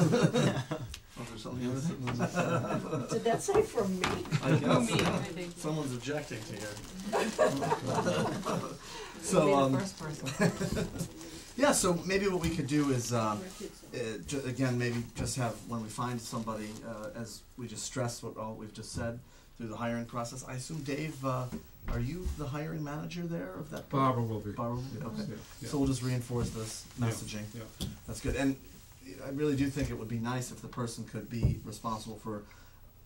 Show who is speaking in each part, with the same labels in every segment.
Speaker 1: Or something else.
Speaker 2: Did that say from me?
Speaker 1: I guess.
Speaker 3: Me, I think.
Speaker 1: Someone's objecting to you.
Speaker 3: You'll be
Speaker 1: So,
Speaker 3: the
Speaker 1: um,
Speaker 3: first person.
Speaker 1: yeah, so maybe what we could do is, uh, uh, ju- again, maybe just have, when we find somebody, uh, as we just stressed what all we've just said through the hiring process, I assume Dave, uh, are you the hiring manager there of that?
Speaker 4: Barbara will be.
Speaker 1: Barbara, okay.
Speaker 4: Yeah, yeah.
Speaker 1: So we'll just reinforce this
Speaker 4: Yeah,
Speaker 1: messaging.
Speaker 4: yeah.
Speaker 1: That's good. And I really do think it would be nice if the person could be responsible for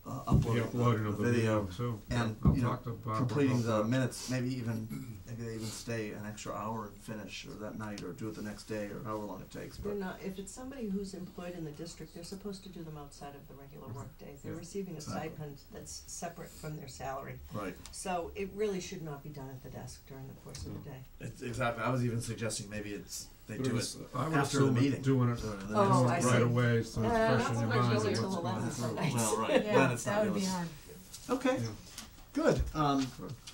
Speaker 1: uh, uploading,
Speaker 4: The uploading
Speaker 1: the,
Speaker 4: of the
Speaker 1: video,
Speaker 4: video, so, yeah,
Speaker 1: and,
Speaker 4: I'll
Speaker 1: you know,
Speaker 4: talk to Barbara.
Speaker 1: completing
Speaker 4: about
Speaker 1: the
Speaker 4: that.
Speaker 1: minutes. Maybe even maybe they even stay an extra hour and finish, or that night, or do it the next day, or however long it takes.
Speaker 2: They're
Speaker 1: But
Speaker 2: not, if it's somebody who's employed in the district, they're supposed to do them outside of the regular workdays. They're
Speaker 4: Yeah.
Speaker 2: receiving a
Speaker 1: Exactly.
Speaker 2: stipend that's separate from their salary.
Speaker 3: Mm-hmm.
Speaker 1: right,
Speaker 2: So it really should not be done at the desk during the course of the day.
Speaker 1: it's, exactly. I was even suggesting maybe it's they
Speaker 4: But
Speaker 1: do
Speaker 4: it's-
Speaker 1: it.
Speaker 4: I would
Speaker 1: after the
Speaker 4: assume it's
Speaker 1: meeting.
Speaker 4: doing it,
Speaker 1: during the
Speaker 2: Oh,
Speaker 1: next-
Speaker 4: doing it
Speaker 2: I
Speaker 4: right
Speaker 2: see.
Speaker 4: away, so
Speaker 2: Uh,
Speaker 4: it's
Speaker 2: not
Speaker 4: fresh in your
Speaker 3: so much
Speaker 4: mind.
Speaker 3: really
Speaker 4: what's
Speaker 3: till
Speaker 4: going
Speaker 2: 11
Speaker 4: through.
Speaker 2: sometimes.
Speaker 1: Well, right. then
Speaker 3: Yeah,
Speaker 1: it's not
Speaker 3: that would be
Speaker 1: yours.
Speaker 3: hard.
Speaker 1: Okay,
Speaker 4: Yeah.
Speaker 1: good. Um,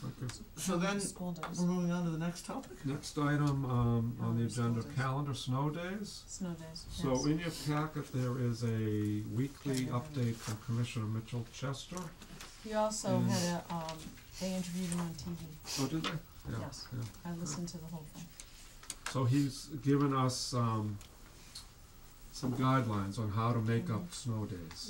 Speaker 4: Okay.
Speaker 1: so then Mm.
Speaker 3: School does,
Speaker 1: we're moving on to the next topic.
Speaker 4: Next item, um, on the
Speaker 3: Oh, snow
Speaker 4: agenda,
Speaker 3: days.
Speaker 4: calendar snow days.
Speaker 3: snow days, yes.
Speaker 4: So in your packet, there is a weekly
Speaker 3: Yeah.
Speaker 4: update from Commissioner Mitchell Chester.
Speaker 3: You also
Speaker 4: Mm.
Speaker 3: had a, um, they interviewed him on TV,
Speaker 4: Oh, did they? Yeah,
Speaker 3: Yes.
Speaker 4: yeah.
Speaker 3: I listened to the whole thing.
Speaker 4: So he's given us, um, some guidelines on how to make up snow days.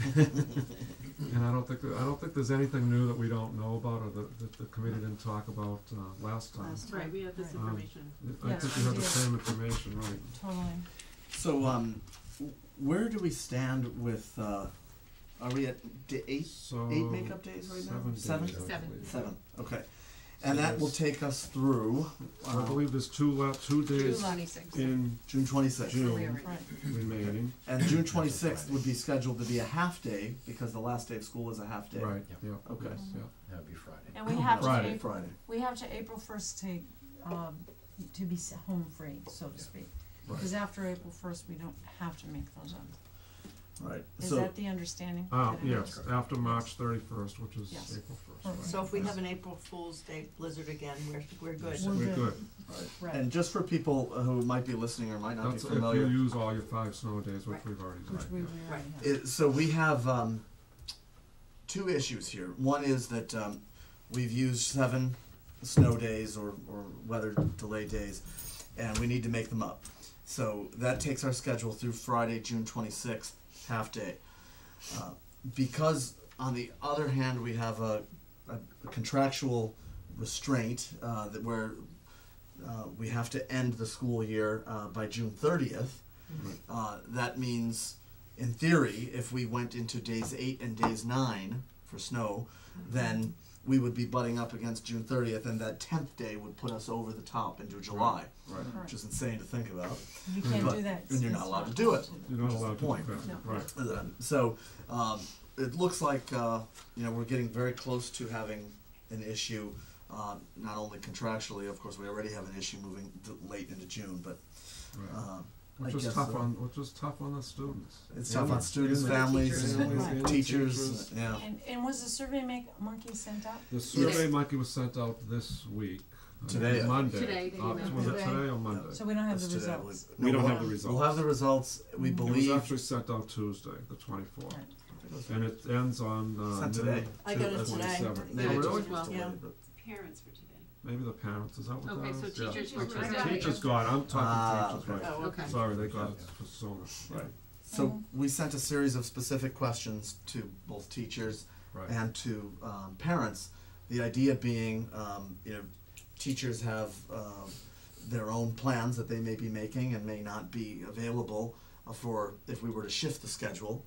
Speaker 4: And I don't think, I don't think there's anything new that we don't know about or that, that the committee didn't talk about, uh, last time.
Speaker 3: Last
Speaker 5: Right,
Speaker 3: time.
Speaker 5: we have this
Speaker 3: Right.
Speaker 4: Um,
Speaker 5: information.
Speaker 4: I
Speaker 3: Yes,
Speaker 4: think you have the
Speaker 3: yes.
Speaker 4: same information, right?
Speaker 3: Totally,
Speaker 1: So, um, w- where do we stand with? Uh, are we at d- eight?
Speaker 4: So.
Speaker 1: Eight makeup days right now?
Speaker 4: Seven days, I
Speaker 1: Seven?
Speaker 5: Seven.
Speaker 4: believe.
Speaker 1: Seven. Okay,
Speaker 4: So
Speaker 1: and that will
Speaker 4: there's-
Speaker 1: take us through
Speaker 4: I
Speaker 1: uh,
Speaker 4: believe there's two la, two days in
Speaker 1: June twenty sixth.
Speaker 4: June
Speaker 3: right,
Speaker 4: remaining,
Speaker 1: And June twenty sixth would be scheduled to be a half day because the last day of school is a half day.
Speaker 4: right, yeah.
Speaker 1: Okay.
Speaker 4: yes, yeah.
Speaker 6: That'd be Friday.
Speaker 3: and we have to,
Speaker 4: Friday.
Speaker 3: April-
Speaker 1: Friday.
Speaker 3: we have to April first to, um, to be s- home free, so to
Speaker 6: Yeah.
Speaker 3: speak.
Speaker 4: Right.
Speaker 3: Because after April first, we don't have to make those up.
Speaker 1: Right.
Speaker 3: Is
Speaker 1: so Oh,
Speaker 3: that the understanding?
Speaker 4: Uh,
Speaker 3: That it
Speaker 4: yes,
Speaker 3: happens?
Speaker 4: after March thirty-first, which is
Speaker 3: Yes.
Speaker 4: April first,
Speaker 3: Perfect.
Speaker 4: right?
Speaker 2: So if we
Speaker 4: yes.
Speaker 2: have an April Fool's Day blizzard again, we're, we're good.
Speaker 3: We're
Speaker 4: We're
Speaker 3: good.
Speaker 4: good,
Speaker 3: Right.
Speaker 1: and just for people who might be listening or might not
Speaker 4: that's
Speaker 1: be
Speaker 4: if you
Speaker 1: familiar,
Speaker 4: use all your five snow days, which
Speaker 2: Right.
Speaker 4: we've already
Speaker 3: Which we
Speaker 4: done,
Speaker 3: we
Speaker 2: Right.
Speaker 3: already have.
Speaker 1: It, so we have um, two issues here. One is that um, we've used seven snow days or, or weather delay days, and we need to make them up. So that takes our schedule through Friday, June 26th, half day. Uh, because, on the other hand, we have a, a contractual restraint uh, that where uh, we have to end the school year uh, by June 30th. Uh, that means, in theory, if we went into days eight and days nine for snow, then we would be butting up against June 30th, and that 10th day would put us over the top into July,
Speaker 4: right?
Speaker 3: Right.
Speaker 1: which is insane to think about.
Speaker 3: You can't
Speaker 1: But-
Speaker 3: do that.
Speaker 1: and you're
Speaker 3: It's
Speaker 1: not allowed to do it.
Speaker 4: You're
Speaker 1: Which
Speaker 4: not
Speaker 1: is the
Speaker 4: allowed to,
Speaker 1: point.
Speaker 4: do
Speaker 3: No.
Speaker 4: that, right,
Speaker 1: Um, So um, it looks like uh, you know we're getting very close to having an issue, uh, not only contractually. Of course, we already have an issue moving d- late into June, but
Speaker 4: right.
Speaker 1: um, I
Speaker 4: Which is
Speaker 1: guess
Speaker 4: tough
Speaker 1: so.
Speaker 4: on, which is tough on the students.
Speaker 1: it's
Speaker 4: And
Speaker 1: tough on
Speaker 4: the-
Speaker 1: students,
Speaker 4: and the
Speaker 1: families,
Speaker 4: teachers.
Speaker 1: and
Speaker 3: Right.
Speaker 4: And the
Speaker 1: teachers.
Speaker 4: teachers.
Speaker 1: Yeah.
Speaker 3: And, and was the survey make, monkey sent out?
Speaker 4: The survey monkey was sent out this week, I think
Speaker 1: Today.
Speaker 4: Monday.
Speaker 5: Today, they
Speaker 4: Uh,
Speaker 5: emailed
Speaker 4: was it
Speaker 3: today.
Speaker 4: today or Monday?
Speaker 3: So we don't have
Speaker 1: Let's
Speaker 3: the
Speaker 1: do that.
Speaker 3: results.
Speaker 1: We-
Speaker 4: We
Speaker 1: no,
Speaker 4: don't
Speaker 1: we'll
Speaker 4: have the results.
Speaker 1: We'll have the results, we
Speaker 3: It was
Speaker 4: It was
Speaker 1: believe.
Speaker 4: actually sent out Tuesday, the twenty-fourth,
Speaker 3: Right.
Speaker 4: and it ends on, uh,
Speaker 1: Sent
Speaker 4: noon
Speaker 1: today.
Speaker 2: I got
Speaker 4: to
Speaker 2: it today.
Speaker 4: 27.
Speaker 1: Maybe
Speaker 4: Oh,
Speaker 1: it
Speaker 4: really?
Speaker 1: just was
Speaker 2: Yeah.
Speaker 1: delayed, but-
Speaker 5: Parents for today.
Speaker 4: Maybe the parents, is that what that
Speaker 5: Okay,
Speaker 4: is?
Speaker 5: so
Speaker 4: Yeah.
Speaker 5: teachers
Speaker 4: Okay,
Speaker 5: were- I
Speaker 4: so
Speaker 5: got it.
Speaker 4: Teachers got, it. I'm
Speaker 1: Ah,
Speaker 4: talking teachers, right.
Speaker 2: Oh,
Speaker 5: Okay.
Speaker 4: Sorry, they got it
Speaker 6: Yeah.
Speaker 4: for so much.
Speaker 1: Right. So we sent a series of specific questions to both teachers
Speaker 4: Right.
Speaker 1: and to um, parents. The idea being, um, you know, teachers have um, their own plans that they may be making and may not be available uh, for if we were to shift the schedule.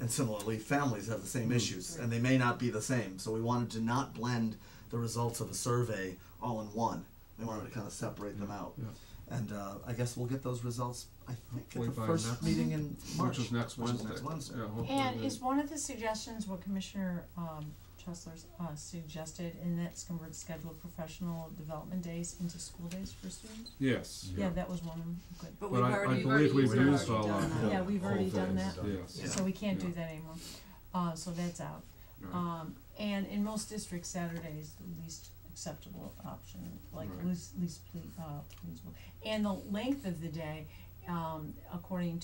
Speaker 1: And similarly, families have the same
Speaker 4: Mm-hmm.
Speaker 1: issues and they may not be the same. So we wanted to not blend the results of a survey all in one. We wanted to kind of separate them out.
Speaker 4: Yeah.
Speaker 1: And uh, I guess we'll get those results, I think,
Speaker 4: Hopefully
Speaker 1: at the
Speaker 4: by
Speaker 1: first
Speaker 4: next-
Speaker 1: meeting in March.
Speaker 4: Which is next
Speaker 1: which
Speaker 4: Wednesday.
Speaker 1: Wednesday.
Speaker 4: Yeah, hopefully
Speaker 3: And
Speaker 4: they-
Speaker 3: is one of the suggestions what Commissioner, um, Chesler's, uh, suggested, and that's convert scheduled professional development days into school days for students?
Speaker 4: Yes.
Speaker 3: Yeah, that was one, of them. good.
Speaker 2: But
Speaker 4: But
Speaker 2: we've
Speaker 4: I, I
Speaker 2: already,
Speaker 4: believe we've
Speaker 5: already
Speaker 4: used all
Speaker 5: done
Speaker 4: our.
Speaker 5: that.
Speaker 3: Yeah, we've
Speaker 4: whole
Speaker 3: already done
Speaker 4: days.
Speaker 3: that.
Speaker 4: Yes.
Speaker 1: Yeah.
Speaker 3: So we can't do
Speaker 4: Yeah.
Speaker 3: that anymore. Uh, so that's out.
Speaker 4: Right.
Speaker 3: Um, and in most districts, Saturday is the least acceptable option, like
Speaker 4: Right.
Speaker 3: least, least ple- uh, pleasable. And the length of the day, um, according